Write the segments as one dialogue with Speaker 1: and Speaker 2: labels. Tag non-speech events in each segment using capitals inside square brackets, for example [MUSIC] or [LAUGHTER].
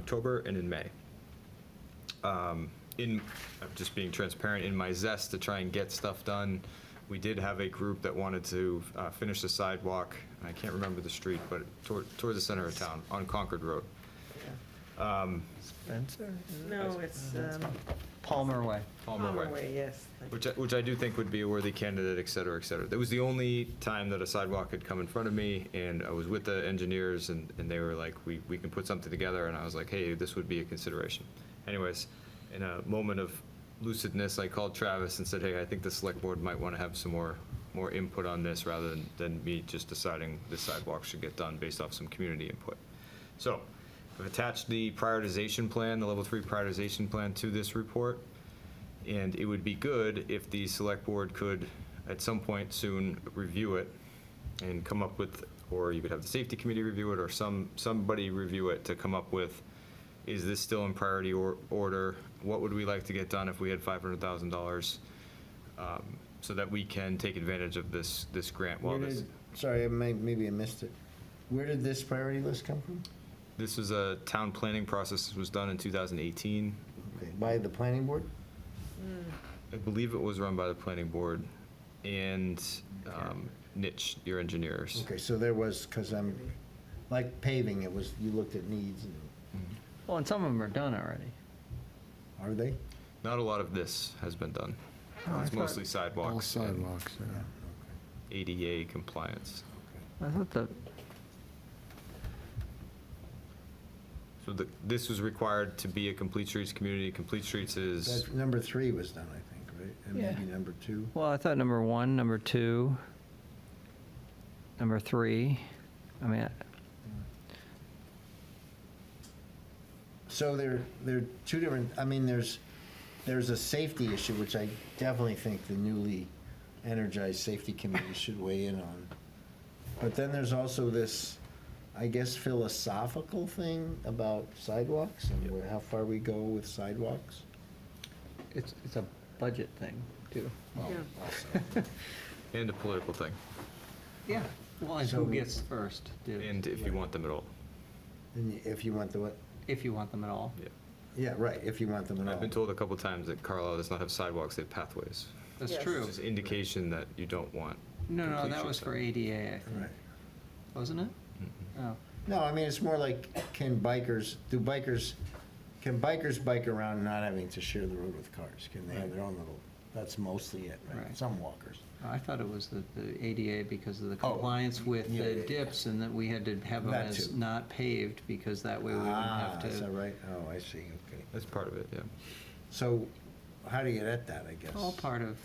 Speaker 1: October and in May. Um, In, I'm just being transparent, in my zest to try and get stuff done, we did have a group that wanted to uh, finish the sidewalk, I can't remember the street, but toward, toward the center of town, on Concord Road. Um,
Speaker 2: Spencer?
Speaker 1: That's-
Speaker 3: No, it's um,
Speaker 2: Palmer Way.
Speaker 1: Palmer Way.
Speaker 3: yes.
Speaker 1: Which, I- which I do think would be a worthy candidate, et cetera, et cetera. That was the only time that a sidewalk had come in front of me, and I was with the engineers, and, and they were like, we, we can put something together, and I was like, hey, this would be a consideration. Anyways, in a moment of lucidness, I called Travis and said, hey, I think the select board might want to have some more, more input on this, rather than, than me just deciding the sidewalk should get done based off some community input. So, I've attached the prioritization plan, the level three prioritization plan to this report. And it would be good if the select board could, at some point soon, review it and come up with, or you could have the safety committee review it, or some, somebody review it to come up with, is this still in priority or, order? What would we like to get done if we had five hundred thousand dollars? um, So that we can take advantage of this, this grant while
Speaker 4: Where
Speaker 1: this,
Speaker 4: did- Sorry, I may- maybe I missed it. Where did this priority list come from?
Speaker 1: this was a town planning process, that was done in two thousand eighteen.
Speaker 4: Okay, By the planning board?
Speaker 1: I believe it was run by the planning board and, um, Nitch, your engineers.
Speaker 4: Okay, so there was, because I'm, like paving, it was, you looked at needs, and
Speaker 2: Well, and some of them are done already.
Speaker 4: are they?
Speaker 1: Not a lot of this has been done. It's mostly
Speaker 5: All
Speaker 1: sidewalks and
Speaker 5: sidewalks,
Speaker 4: Yeah,
Speaker 5: yeah.
Speaker 1: ADA compliance.
Speaker 2: I thought the,
Speaker 1: So the, this was required to be a complete streets community. Complete streets is,
Speaker 4: That, number three was done, I think, right? And maybe
Speaker 2: Yeah.
Speaker 4: number two?
Speaker 2: well, I thought number one, number two, number three, I mean,
Speaker 4: So there, there are two different, I mean, there's, there's a safety issue, which I definitely think the newly energized safety committee should weigh in on. But then there's also this, I guess philosophical thing about sidewalks and where- how far we go with sidewalks.
Speaker 2: it's, it's a budget thing, too.
Speaker 4: Well,
Speaker 3: Yeah.
Speaker 4: also.
Speaker 1: and a political thing,
Speaker 2: Yeah, well,
Speaker 4: and who So- gets
Speaker 2: first,
Speaker 1: and if you want them at all.
Speaker 4: And If you want the, what,
Speaker 2: if you want them at all.
Speaker 1: Yeah.
Speaker 4: yeah, right, if you want them at all.
Speaker 1: I've been told a couple times that Carlisle does not have sidewalks, they have pathways.
Speaker 3: That's Yes.
Speaker 1: Which
Speaker 3: true.
Speaker 1: is indication that you don't want. complete streets.
Speaker 2: ADA, I
Speaker 4: Right. Mm-hmm.
Speaker 2: wasn't it?
Speaker 1: Mhm.
Speaker 2: Oh.
Speaker 4: No, I mean, it's more like, can bikers, do bikers, can bikers bike around not having to share the road with cars? Can they have their own little, that's mostly it, right?
Speaker 2: Right.
Speaker 4: Some walkers.
Speaker 2: I thought it was the, the ADA because of the
Speaker 4: Oh,
Speaker 2: compliance with
Speaker 4: yeah, yeah,
Speaker 2: the
Speaker 4: yeah.
Speaker 2: dips and that we had to have them
Speaker 4: That
Speaker 2: as
Speaker 4: too.
Speaker 2: not paved because that way we wouldn't
Speaker 4: Ah,
Speaker 2: have
Speaker 4: is that
Speaker 2: to.
Speaker 4: right? Oh, I see, okay.
Speaker 1: That's part of it, yeah.
Speaker 4: So how do you get at that, I guess?
Speaker 2: All part of,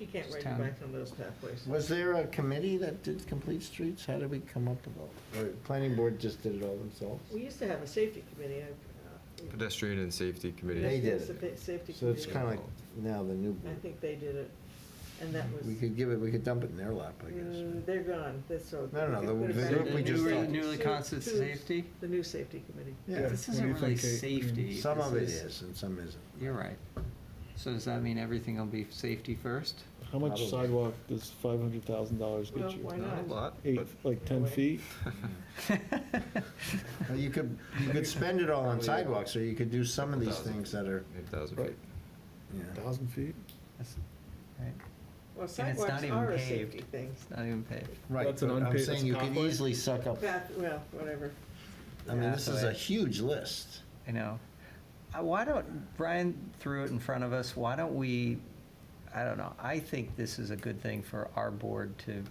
Speaker 3: You can't
Speaker 2: It's
Speaker 3: ride your
Speaker 2: town.
Speaker 3: bike on those pathways.
Speaker 4: Was there a committee that did complete streets? How did we come up with all? Or planning board just did it all themselves?
Speaker 3: We used to have a safety committee. I- uh,
Speaker 1: Pedestrian and safety committee.
Speaker 4: They did
Speaker 3: Yes,
Speaker 4: it.
Speaker 3: a Safety
Speaker 4: So it's kind
Speaker 3: committee.
Speaker 4: of like now the new
Speaker 3: I
Speaker 4: board.
Speaker 3: think they did it, and that was,
Speaker 4: We could give it, we could dump it in their lap, I
Speaker 3: Mm,
Speaker 4: guess.
Speaker 3: they're gone, that's so.
Speaker 4: No, no,
Speaker 3: we
Speaker 4: no,
Speaker 3: could
Speaker 4: the-
Speaker 3: put it
Speaker 2: the
Speaker 3: back
Speaker 4: group
Speaker 3: in
Speaker 4: we
Speaker 2: the
Speaker 3: the
Speaker 4: just
Speaker 3: new-
Speaker 2: newly,
Speaker 4: talked-
Speaker 2: newly
Speaker 3: two-
Speaker 2: constituted
Speaker 3: two-
Speaker 2: safety?
Speaker 3: The new safety committee.
Speaker 4: Yeah.
Speaker 2: This
Speaker 5: What do
Speaker 2: isn't
Speaker 5: you
Speaker 2: really
Speaker 5: think, Kate?
Speaker 2: safety.
Speaker 4: Some
Speaker 2: This
Speaker 4: of it
Speaker 2: is-
Speaker 4: is and some isn't.
Speaker 2: You're right. So does that mean everything will be safety
Speaker 4: [LAUGHS]
Speaker 2: first?
Speaker 5: How much
Speaker 4: Probably.
Speaker 5: sidewalk does five hundred thousand dollars
Speaker 3: Well,
Speaker 5: get
Speaker 3: why
Speaker 5: you?
Speaker 1: Not a
Speaker 3: not?
Speaker 1: lot,
Speaker 5: Eight,
Speaker 1: but
Speaker 5: like ten feet?
Speaker 4: Well, you could, you could spend it all on
Speaker 1: Probably.
Speaker 4: sidewalks, or you could do some of these
Speaker 1: Oh, Thousand.
Speaker 4: things that are,
Speaker 1: maybe 1,000
Speaker 5: Right.
Speaker 1: feet.
Speaker 4: you know.
Speaker 5: Thousand feet?
Speaker 2: That's- right,
Speaker 3: Well,
Speaker 2: not
Speaker 3: sidewalks
Speaker 2: even
Speaker 3: are a
Speaker 2: paved.
Speaker 3: safety thing.
Speaker 2: It's not even paved.
Speaker 4: Right,
Speaker 5: That's an
Speaker 4: but I'm
Speaker 5: unpaid-
Speaker 4: saying
Speaker 5: that's
Speaker 4: you could
Speaker 5: pathway?
Speaker 4: easily suck up,
Speaker 3: Path, well, whatever.
Speaker 4: I mean, this is a
Speaker 2: Pathway.
Speaker 4: huge list.
Speaker 2: I know. Uh, Why don't, Brian threw it in front of us, why don't we, I don't know, I think this is a good thing for our board to,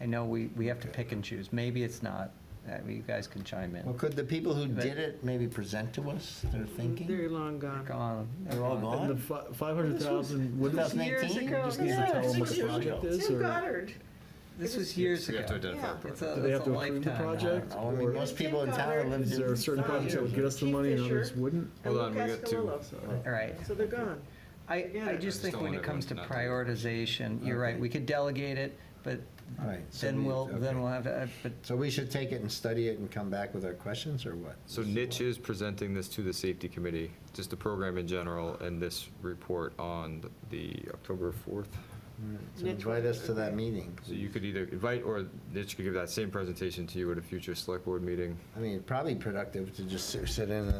Speaker 2: I know we, we have to pick and choose, maybe it's not, Uh, you guys can chime
Speaker 4: Well,
Speaker 2: in.
Speaker 4: could the people who
Speaker 2: But-
Speaker 4: did it maybe present to us their
Speaker 3: They're
Speaker 4: thinking?
Speaker 3: long gone.
Speaker 2: Gone.
Speaker 4: They're all gone?
Speaker 5: And the fi- five hundred thousand, what
Speaker 4: This
Speaker 5: is,
Speaker 4: was-
Speaker 3: Years
Speaker 4: 2019?
Speaker 3: ago.
Speaker 5: Just need to
Speaker 3: Yeah,
Speaker 5: tell them
Speaker 3: six
Speaker 5: what the
Speaker 3: years
Speaker 5: project
Speaker 3: ago.
Speaker 5: is,
Speaker 3: Tim
Speaker 5: or-
Speaker 3: Goddard.
Speaker 2: This
Speaker 3: It
Speaker 2: was
Speaker 3: was-
Speaker 2: years
Speaker 1: So you have to
Speaker 2: ago.
Speaker 1: identify a
Speaker 3: Yeah.
Speaker 2: It's
Speaker 1: project.
Speaker 2: a,
Speaker 5: do they have
Speaker 2: it's a
Speaker 5: to approve the
Speaker 2: lifetime. I don't
Speaker 5: project?
Speaker 2: know.
Speaker 4: Oh, I mean,
Speaker 5: or
Speaker 4: most people in
Speaker 3: Tim
Speaker 4: town
Speaker 3: Goddard
Speaker 4: lived
Speaker 5: Is there
Speaker 4: in
Speaker 5: a certain
Speaker 3: Five
Speaker 5: project that would
Speaker 3: years.
Speaker 5: get us the money and
Speaker 3: Keith Fisher.
Speaker 5: others wouldn't?
Speaker 3: And
Speaker 1: Hold on, we
Speaker 3: Lou
Speaker 1: got two.
Speaker 3: Cascarello.
Speaker 5: So-
Speaker 2: All right.
Speaker 3: So they're gone.
Speaker 2: I,
Speaker 3: Yeah.
Speaker 2: I
Speaker 3: I
Speaker 2: just
Speaker 3: just
Speaker 2: think
Speaker 1: don't
Speaker 2: when
Speaker 1: want
Speaker 2: it comes to
Speaker 1: everyone to not
Speaker 2: prioritization, you're right,
Speaker 4: Okay.
Speaker 2: we could delegate it, but
Speaker 4: Right, so
Speaker 2: then
Speaker 4: we-
Speaker 2: we'll, then
Speaker 4: okay.
Speaker 2: we'll have to, uh, but
Speaker 4: So we should take it and study it and come back with our questions, or what?
Speaker 1: So Nitch is presenting this to the safety committee, just the program in general, and this report on the October 4th,
Speaker 4: So
Speaker 3: Next
Speaker 4: invite
Speaker 3: one.
Speaker 4: us to that meeting.
Speaker 1: So you could either invite, or Mitch could give that same presentation to you at a future select board meeting.
Speaker 4: I mean, it'd probably be productive to just sit sit in and